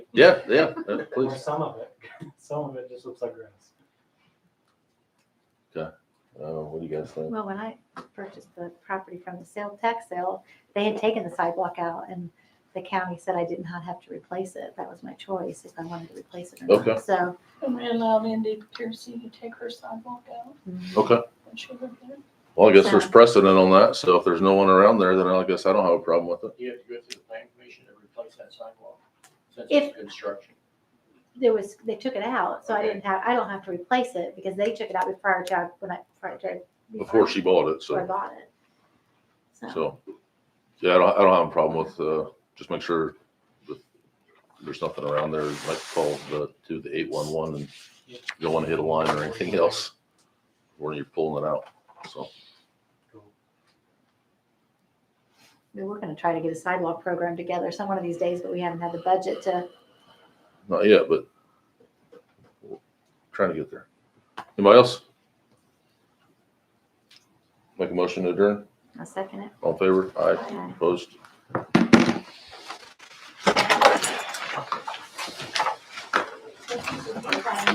Yeah, yeah, yeah, Or please. some of it, some of it just looks like grass. Uh, what do you guys think? Well, when I purchased the property from the sale, tax sale, they had taken the sidewalk out and the county said I did not have to replace it. That was my choice if I wanted to replace it or Okay. not. So, And we allowed Andy Piercy to take her sidewalk out Okay. when she lived there. Well, I guess there's precedent on that. So if there's no one around there, then I guess I don't have a problem with it. You have to go through the planning commission to replace that sidewalk, since If- it's construction. there was, they took it out, so I didn't have, I don't have to replace it because they took it out prior to, I- when I, prior to. Before she bought it, Before I so, bought it. So, so, yeah, I don't, I don't have a problem with, uh, just make sure that there's nothing around there. Like call the, to the eight-one-one and you don't want to hit a line or anything else when you're pulling it out. So, we were gonna try to get a sidewalk program together some one of these days, but we haven't had the budget to, not yet, but trying to get there. Anybody else? Make a motion to adjourn? I second it. All in favor? Aye. Aye. Opposed?